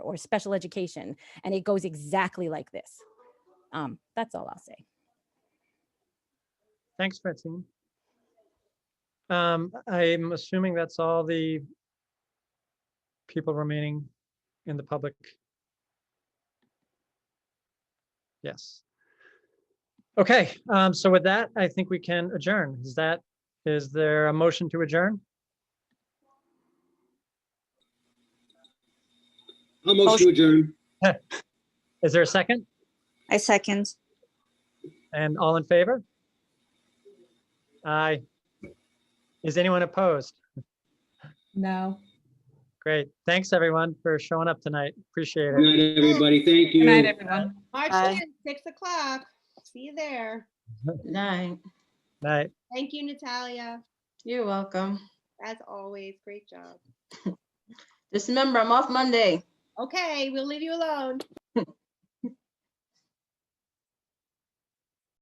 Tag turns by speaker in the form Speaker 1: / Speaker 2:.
Speaker 1: or special education. And it goes exactly like this. Um, that's all I'll say.
Speaker 2: Thanks, Francine. Um, I'm assuming that's all the people remaining in the public. Yes. Okay, um, so with that, I think we can adjourn. Is that, is there a motion to adjourn?
Speaker 3: I'll motion to adjourn.
Speaker 2: Is there a second?
Speaker 4: I second.
Speaker 2: And all in favor? Aye. Is anyone opposed?
Speaker 5: No.
Speaker 2: Great. Thanks, everyone, for showing up tonight. Appreciate
Speaker 3: Good
Speaker 2: it.
Speaker 3: night, everybody. Thank you.
Speaker 5: Good night, everyone.
Speaker 6: March
Speaker 4: Bye.
Speaker 6: 10th, 6 o'clock. See you there.
Speaker 7: Night.
Speaker 2: Night.
Speaker 6: Thank you, Natalia.
Speaker 7: You're welcome.
Speaker 6: As always, great job.
Speaker 7: Just remember, I'm off Monday.
Speaker 6: Okay, we'll leave you alone.